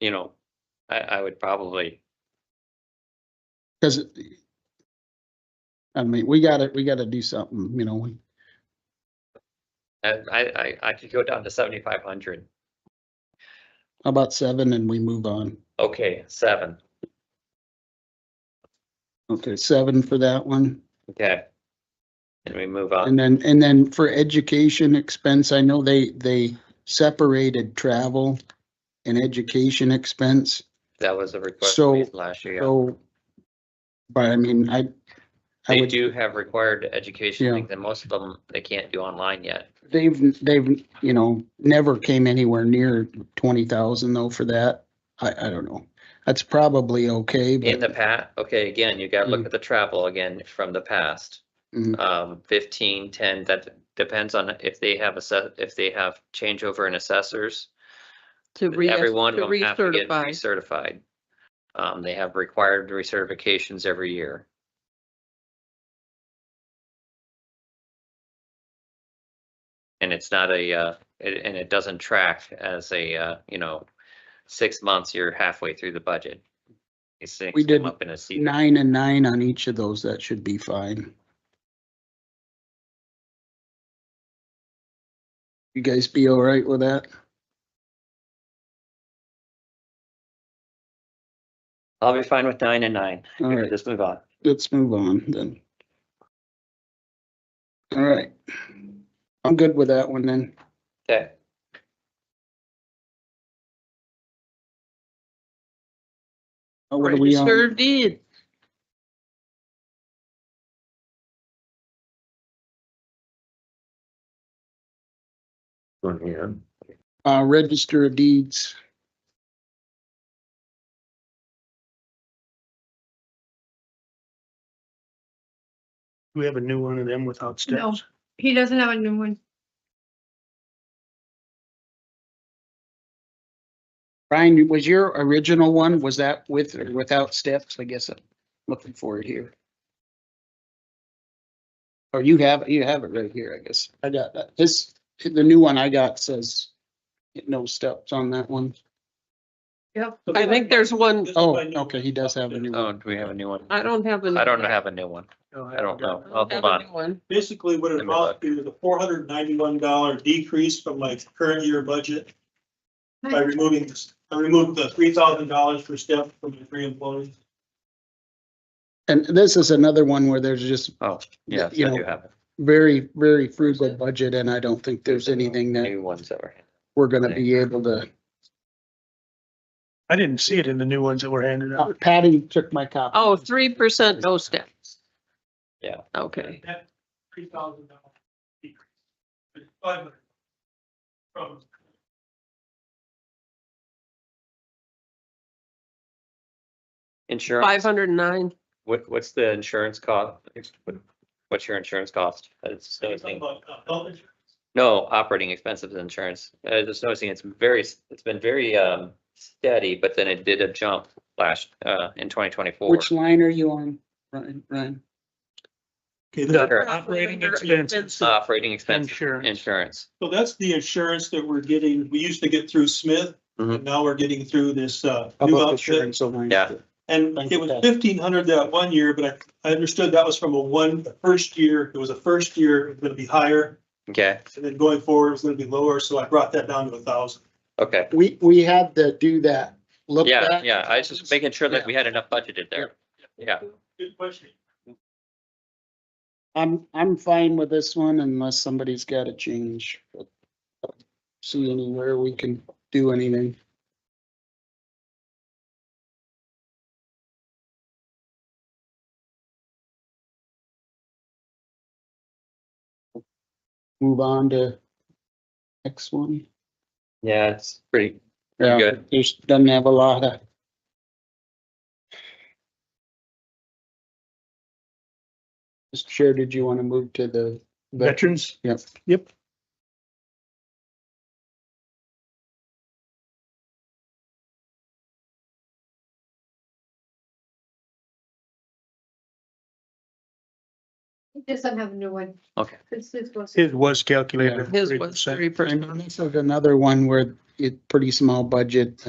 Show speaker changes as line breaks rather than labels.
you know, I, I would probably,
Because I mean, we gotta, we gotta do something, you know, we-
I, I, I- I could go down to seventy-five hundred.
how about seven and we move on?
Okay, seven,
Okay, seven for that one.
okay. And we move on.
And then, and then for education expense, I know they, they separated travel and education expense.
That was a request
So-
made last year. yeah.
So, but I mean, I, I
They
would,
do have required education
Yeah.
things and most of them they can't do online yet.
they've, they've, you know, never came anywhere near twenty thousand though for that. I, I don't know. That's probably okay,
In the
but
past, okay, again, you gotta look
Mm.
at the travel again from the past.
Mm.
Um, fifteen, ten, that depends on if they have a set, if they have changeover in assessors.
To re,
Every one
to
of them have to get recertified.
recertify.
Um, they have required recertifications every year. And it's not a, uh, it- and it doesn't track as a, uh, you know, six months, you're halfway through the budget. These things
We
come
did
up in a season.
nine and nine on each of those, that should be fine. You guys be all right with that?
I'll be fine with nine and nine.
All right.
Just move on.
let's move on then. All right. I'm good with that one then.
Okay.
Oh, What are we
Sure
on?
did.
One hand.
Uh, register of deeds.
Do we have a new one of them without
No.
steps?
He doesn't have a new one.
Brian, was your original one, was that with or without steps? I guess I'm looking for it here. Or you have, you have it right here, I guess. I got that. This, the new one I got says no steps on that one.
Yep.
I think there's one,
Oh, okay, he does have a new
Oh,
one.
do we have a new one?
I don't have a.
I don't have a new one. I don't know. Oh,
have
hold
a
on.
new one.
basically what it
Let me
amounts to is a four hundred ninety-one dollar decrease from my current year budget by removing this, I removed the three thousand dollars per step from the three employees.
And this is another one where there's just
Oh, yes,
you
I
know,
do have
very, very frugal budget and I don't think there's anything
a
that
new ones that were.
we're gonna be able to.
I didn't see it in the new ones that were handed out.
Patty took my copy.
Oh, three percent no steps.
Yeah.
Okay,
That three thousand dollar decrease. is 500 From
Insurance.
five hundred and nine.
What, what's the insurance cost? What's your insurance cost? I was just noticing-
about, uh, health insurance.
No, operating expenses and insurance. I was just noticing it's very, s- it's been very um steady, but then it did a jump last uh in twenty twenty-four.
Which line are you on, Ryan? Ryan?
Okay,
Yeah.
the operating expenses.
Operating expense,
Insurance.
insurance.
So that's the insurance that we're getting, we used to get through Smith,
Mhm.
and now we're getting through this, uh,
How
new
about the
outfit.
insurance line?
Yeah.
And
Thank
it
you,
was
Ted.
fifteen hundred that one year, but I, I understood that was from a one, the first year, it was a first year, it was gonna be higher.
Okay,
And then going forward, it's gonna be lower, so I brought that down to a thousand.
okay.
We, we had to do that. Look
Yeah,
back.
yeah. I was just making sure that we had enough budgeted there. Yeah,
Good question.
I'm, I'm fine with this one unless somebody's got a change. See anywhere we can do anything. Move on to next one.
yeah, it's pretty,
Yeah,
Good.
just doesn't have a lot of. Mr. Chair, did you want to move to the?
Veterans,
Yep.
Yep.
He doesn't have a new one.
Okay.
This is what's-
his was calculated. at
His was
3%.
three percent.
And this is another one where it, pretty small budget.